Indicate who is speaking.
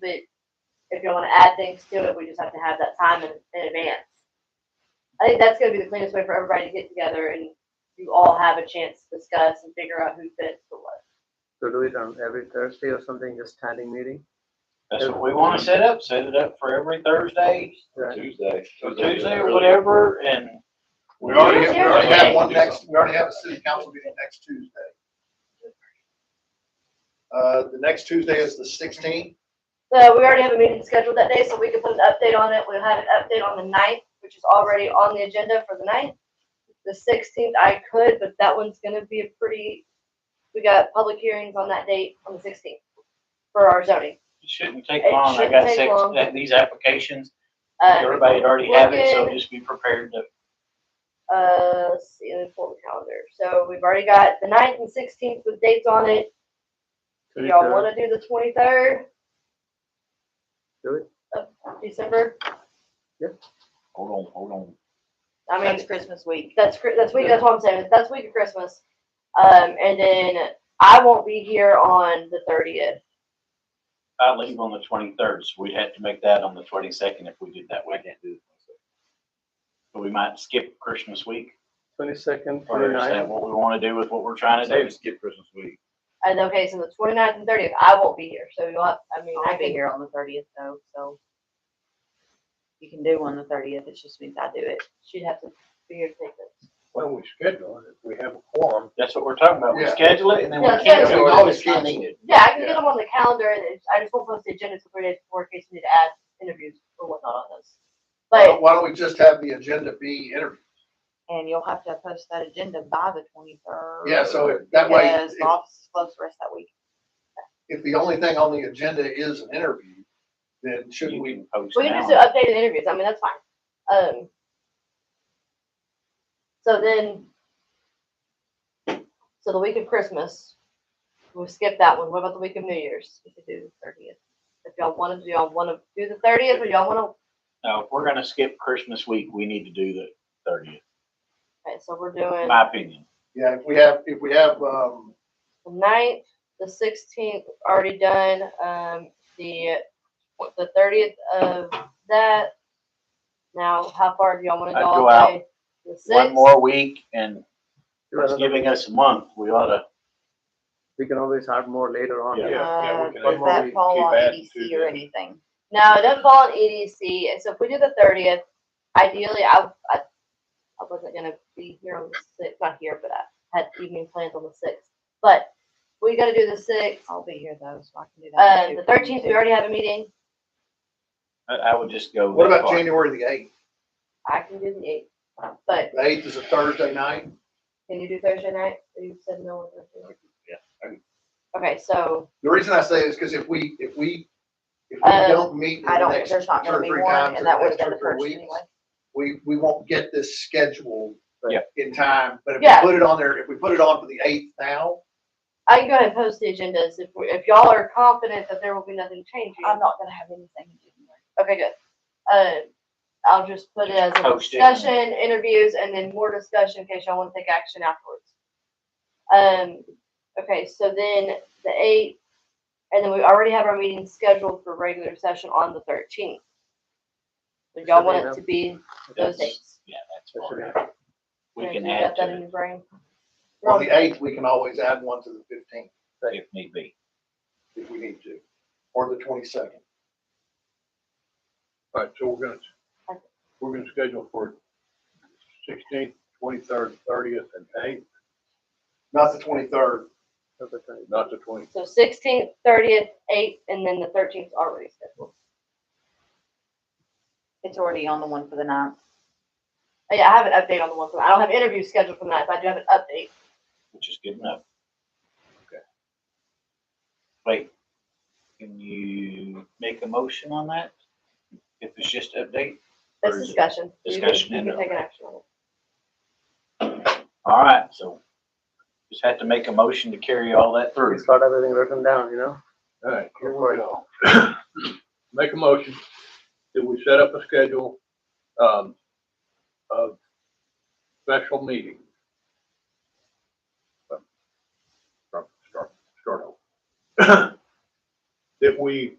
Speaker 1: but if you wanna add things to it, we just have to have that time in, in advance. I think that's gonna be the cleanest way for everybody to get together and you all have a chance to discuss and figure out who fits for what.
Speaker 2: So do it on every Thursday or something, just standing meeting?
Speaker 3: That's what we wanna set up, set it up for every Thursday,
Speaker 2: Right.
Speaker 4: Tuesday.
Speaker 3: or Tuesday or whatever, and
Speaker 5: We already, have- we already have one
Speaker 4: Yeah.
Speaker 5: next, we already have a city council meeting next Tuesday. Uh, the next Tuesday is the sixteenth,
Speaker 1: So we already have a meeting scheduled that day, so we can put an update on it. We'll have an update on the ninth, which is already on the agenda for the ninth. The sixteenth I could, but that one's gonna be a pretty, we got public hearings on that date on the sixteenth for our zoning.
Speaker 3: it shouldn't take
Speaker 1: It
Speaker 3: long. I
Speaker 1: shouldn't
Speaker 3: got
Speaker 1: take
Speaker 3: six,
Speaker 1: long.
Speaker 3: that- these applications,
Speaker 1: Uh,
Speaker 3: everybody had already have it, so
Speaker 1: Looking-
Speaker 3: just be prepared to.
Speaker 1: uh, let's see, let me pull the calendar. So we've already got the ninth and sixteenth with dates on it. Do Y'all wanna do the twenty-third?
Speaker 2: Do it.
Speaker 1: Of December?
Speaker 4: Hold on, hold on.
Speaker 1: I mean.
Speaker 6: That's Christmas week.
Speaker 1: That's cr- that's week. That's what I'm saying. That's week of Christmas. Um, and then I won't be here on the thirtieth.
Speaker 3: I leave on the twenty-third, so we'd have to make that on the twenty-second if we did that way. But we might skip Christmas week,
Speaker 2: Twenty-second,
Speaker 3: or is that
Speaker 2: twenty-ninth,
Speaker 3: what we wanna do with what we're trying to
Speaker 4: Say
Speaker 3: do?
Speaker 4: just skip Christmas week.
Speaker 1: And okay, so the 29th and thirtieth, I won't be here. So you'll have. I mean, I
Speaker 6: I'll be
Speaker 1: can.
Speaker 6: here on the thirtieth though, so. You can do on the thirtieth, it just means I do it.
Speaker 1: She'd have to be here to take this.
Speaker 5: when we schedule it, if we have a quorum.
Speaker 3: That's what we're talking about. We
Speaker 5: Yeah.
Speaker 3: schedule it and then we
Speaker 1: Yeah,
Speaker 3: cancel
Speaker 1: schedule
Speaker 5: it.
Speaker 3: it.
Speaker 5: Always
Speaker 3: if it's not
Speaker 5: cancel it.
Speaker 3: needed.
Speaker 1: Yeah, I can
Speaker 5: Yeah.
Speaker 1: get them on the calendar, and it's- I just won't post the agenda until three days before in case we need to add interviews or whatnot on those.
Speaker 5: Why don't-
Speaker 1: But
Speaker 5: why don't we just have the agenda be interview?
Speaker 6: And you'll have to post that agenda by the twenty-third.
Speaker 5: Yeah, so it- that way,
Speaker 6: Because the
Speaker 5: if,
Speaker 6: office is closed the rest of that week.
Speaker 5: if the only thing on the agenda is an interview, then shouldn't
Speaker 3: You
Speaker 5: we,
Speaker 3: can post
Speaker 1: we can
Speaker 3: now.
Speaker 1: just do updated interviews. I mean, that's fine. Um. So then. So the week of Christmas, we'll skip that one. What about the week of New Year's?
Speaker 6: You could do the thirtieth.
Speaker 1: If y'all want to, do y'all want to do the thirtieth or y'all want
Speaker 3: No, if we're gonna skip Christmas week, we need to do the thirtieth,
Speaker 1: to, okay, so we're doing
Speaker 3: my opinion.
Speaker 5: yeah, if we have, if we have, um,
Speaker 1: the ninth, the sixteenth, already done, um, the, what, the thirtieth of that. Now, how far do y'all want to
Speaker 3: I'd
Speaker 1: go all
Speaker 3: go out
Speaker 1: day? The
Speaker 3: One
Speaker 1: sixth,
Speaker 3: more week and
Speaker 2: do
Speaker 3: it's
Speaker 2: another-
Speaker 3: giving us a month. We ought to,
Speaker 2: we can always add more later on.
Speaker 4: Yeah, yeah, we can
Speaker 6: Does
Speaker 4: add-
Speaker 6: that
Speaker 4: keep
Speaker 6: fall on
Speaker 4: adding to
Speaker 6: EDC or
Speaker 4: the-
Speaker 6: anything?
Speaker 1: no, it doesn't fall on EDC, and so if we do the thirtieth, ideally, I, I, I wasn't gonna be here on the sixth, not here, but I had evening plans on the sixth. But we gotta do the sixth,
Speaker 6: I'll be here though, so I can do that.
Speaker 1: um,
Speaker 6: too.
Speaker 1: the thirteenth, we already have a meeting,
Speaker 3: I, I would just go.
Speaker 5: what
Speaker 3: that
Speaker 5: about
Speaker 3: far.
Speaker 5: January the eighth?
Speaker 1: I can do the eighth, but
Speaker 5: The eighth is a Thursday night.
Speaker 1: Can you do Thursday night? You said no one Thursday.
Speaker 4: Yeah, I can.
Speaker 1: Okay, so,
Speaker 5: The reason I say is because if we, if we, if we
Speaker 1: Um,
Speaker 5: don't meet in
Speaker 6: Uh, I
Speaker 5: the
Speaker 6: don't,
Speaker 5: next
Speaker 6: there's not
Speaker 5: two or
Speaker 6: gonna be
Speaker 5: three
Speaker 6: one,
Speaker 5: times in
Speaker 6: and
Speaker 5: the
Speaker 6: that would
Speaker 5: next
Speaker 6: have
Speaker 5: two
Speaker 6: been the
Speaker 5: or three
Speaker 6: first
Speaker 5: weeks,
Speaker 6: anyway.
Speaker 5: we, we won't get this scheduled
Speaker 3: Yeah.
Speaker 5: in time, but if
Speaker 1: Yeah.
Speaker 5: we put it on there, if we put it on for the eighth now,
Speaker 1: I can go ahead and post the agendas if, we- if y'all are confident that there will be nothing changing.
Speaker 6: I'm not gonna have anything in January.
Speaker 1: Okay, good. Uh, I'll just put it as a
Speaker 3: Post it.
Speaker 1: discussion, interviews, and then more discussion in case y'all wanna take action afterwards. Um, okay, so then the eighth, and then we already have our meeting scheduled for regular session on the thirteenth. So y'all want it to be those
Speaker 3: That's-
Speaker 1: dates?
Speaker 3: Yeah, that's
Speaker 2: That should
Speaker 3: fine.
Speaker 2: happen.
Speaker 3: We
Speaker 1: Okay,
Speaker 3: can
Speaker 1: you
Speaker 3: add
Speaker 1: got That in
Speaker 3: to
Speaker 1: your brain?
Speaker 5: on the eighth, we can always add one to the fifteenth
Speaker 3: it if need be.
Speaker 5: if we need to, or the twenty-second.
Speaker 7: All right, so we're gonna,
Speaker 1: Okay.
Speaker 7: we're gonna schedule for sixteenth, twenty-third, thirtieth, and eighth,
Speaker 5: Not the twenty-third,
Speaker 2: That's the time.
Speaker 7: not the twenty.
Speaker 1: So sixteenth, thirtieth, eighth, and then the thirteenth already scheduled.
Speaker 6: It's already on the one for the ninth.
Speaker 1: Oh, Yeah, I have an update on the one from, I don't have interviews scheduled for that, but I do have an update.
Speaker 3: which is good enough. Okay. Wait, can you make a motion on that? If it's just update?
Speaker 1: That's
Speaker 3: Or is it
Speaker 1: discussion. You can-
Speaker 3: discussion
Speaker 1: You
Speaker 3: and
Speaker 1: can take an
Speaker 3: update?
Speaker 1: action on it.
Speaker 3: All right, so just have to make a motion to carry all that
Speaker 2: We
Speaker 3: through.
Speaker 2: start everything written down, you know?
Speaker 7: All right, here we go. Make a motion that we set up a schedule, um, of special meeting. Start, start, start over. That we